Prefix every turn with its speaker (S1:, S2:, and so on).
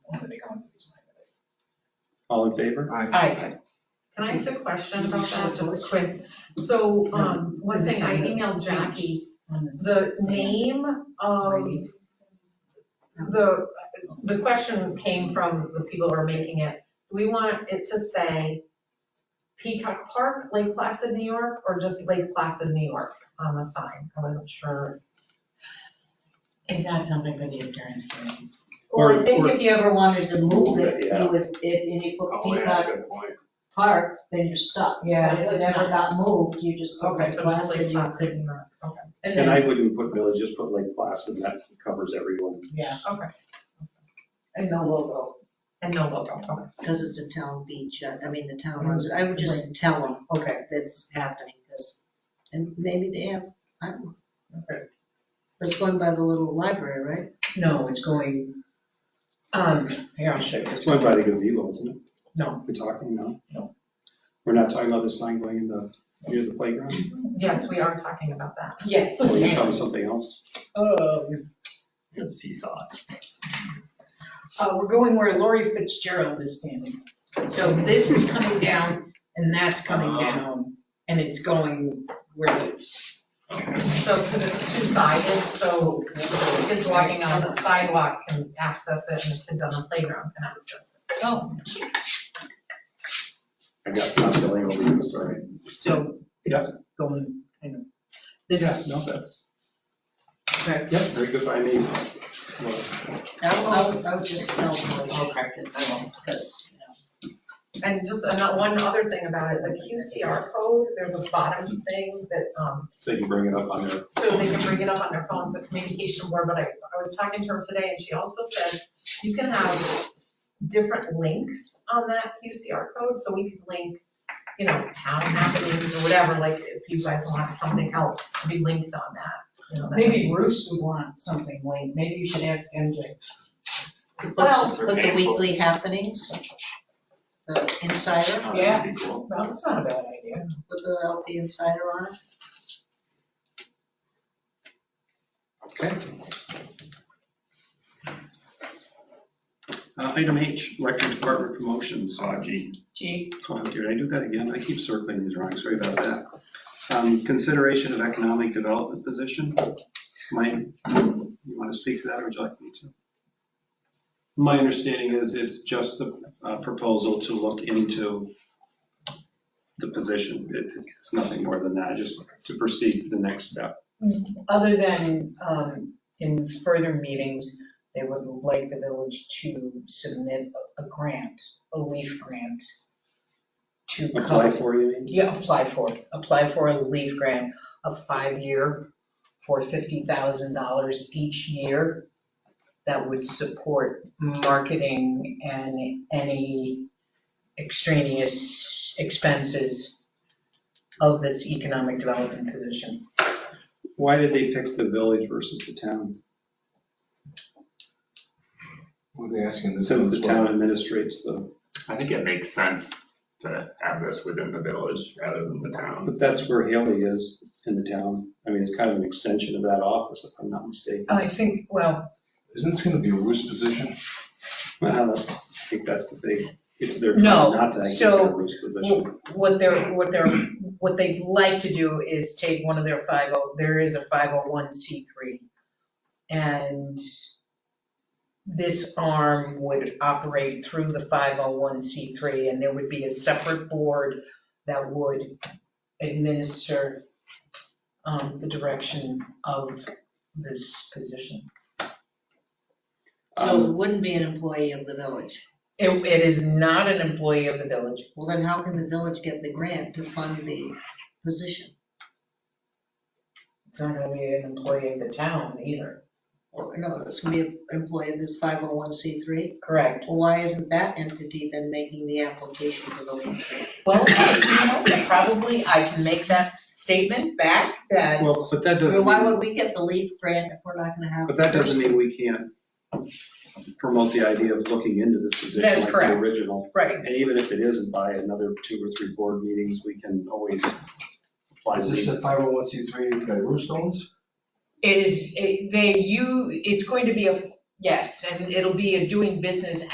S1: All in favor?
S2: Aye.
S3: Can I ask a question about that, just quick? So, um, one thing, I emailed Jackie, the name of the, the question came from the people who are making it. Do we want it to say Peacock Park, Lake Placid, New York, or just Lake Placid, New York on the sign? I wasn't sure.
S2: Is that something for the appearance committee?
S4: Well,
S1: Or-
S4: I think
S1: or-
S4: if you ever wanted to move it,
S1: Yeah.
S4: you would, if, and you put
S5: Oh, yeah,
S4: Peacock
S5: good point.
S4: Park, then you're stuck.
S2: Yeah.
S4: But if it never got moved, you just go
S3: Okay,
S4: right
S3: so just
S4: past
S3: Lake
S4: it.
S3: Placid, New York, okay.
S2: And
S1: And I
S2: then,
S1: wouldn't put village, just put Lake Placid, that covers everyone.
S2: yeah,
S4: And no logo,
S3: And no logo, okay.
S4: because it's a town beach, uh, I mean, the town owns it. I would just tell them
S3: Okay.
S4: that's happening, because, and maybe they have, I don't know.
S3: Okay.
S4: It's going by the little library, right?
S2: no, it's going, um, here, I'll show you.
S1: It's going by the gazebo, isn't it?
S2: No.
S1: We're talking, no? No. We're not talking about the sign going in the, near the playground?
S3: Yes, we are talking about that.
S2: Yes.
S1: Or Oh, you're talking something else?
S2: Um,
S1: The seesaws.
S2: Uh, we're going where Lori Fitzgerald is standing. So this is coming down and that's coming
S5: Ah.
S2: down and it's going where the.
S3: So, because it's two-sided, so kids walking on the sidewalk can access it, and the kids on the playground can access it.
S2: Oh.
S1: I got Tom Billy over you, sorry.
S2: So it's going, kind of, this
S1: Yeah,
S2: is,
S1: no, that's,
S2: okay,
S1: yeah, very good by me. Well,
S4: I would- I would, I would just tell them.
S2: Okay.
S4: Because,
S3: And just another, one other thing about it, the QCR code, there's a bottom thing that, um,
S1: So you can bring it up on there.
S3: so they can bring it up on their phones, the communication board, but I, I was talking to her today, and she also said, you can have s- different links on that QCR code, so we can link, you know, town happenings or whatever, like, if you guys want something else to be linked on that, you know. that-
S6: Maybe Bruce would want something linked, maybe you should ask MJ.
S4: you know.
S3: Well-
S4: But but the weekly happenings, the insider,
S5: Oh, that'd
S6: Yeah.
S5: be cool.
S6: Well, that's not a bad idea.
S4: with the LP insider on it.
S1: Okay. Uh, Item H, electric department promotions, uh, G.
S6: Gee.
S1: Oh, did I do that again? I keep circling these wrong, sorry about that. Um, Consideration of economic development position. My, you want to speak to that, or would you like me to?
S7: My understanding is it's just the uh, proposal to look into the position. It- It's nothing more than that, just to proceed to the next step.
S6: Other than, um, in further meetings, they would like the village to submit a grant, a leaf grant to
S1: Apply
S6: cover.
S1: for, you mean?
S6: Yeah, apply for it, apply for a leaf grant, a five-year for fifty thousand dollars each year that would support marketing and any extraneous expenses of this economic development position.
S1: Why did they pick the village versus the town?
S8: What are they asking?
S1: Since the town administrates the,
S5: I think it makes sense to have this within the village rather than the town.
S1: but that's where Haley is in the town. I mean, it's kind of an extension of that office, if I'm not mistaken.
S6: I think, well,
S8: Isn't this gonna be a Bruce position?
S1: Well, that's, I think that's the big, it's their.
S6: No,
S1: Not to actually
S6: so-
S1: get a Bruce position.
S6: what they're, what they're, what they'd like to do is take one of their 50, there is a 501c3. And this arm would operate through the 501c3, and there would be a separate board that would administer um, the direction of this position.
S4: So
S1: Um,
S4: it wouldn't be an employee of the village.
S6: It, it is not an employee of the village.
S4: Well, then how can the village get the grant to fund the position?
S6: It's not gonna be an employee of the town either.
S4: Well, no, it's gonna be an employee of this 501c3.
S6: Correct.
S4: Well, why isn't that entity then making the application for the leave grant?
S6: Well, you know, probably I can make that statement back that
S1: Well, but that doesn't.
S4: Or why
S1: mean-
S4: would we get the leave grant if we're not gonna have?
S1: But that doesn't mean we can't promote the idea of looking into this position
S6: That
S1: like
S6: is
S1: the
S6: correct.
S1: original.
S6: right,
S1: And even if it isn't by another two or three board meetings, we can always apply.
S8: Is this a 501c3 that Bruce owns?
S6: it is, it- they, you, it's going to be a, yes, and it'll be a doing business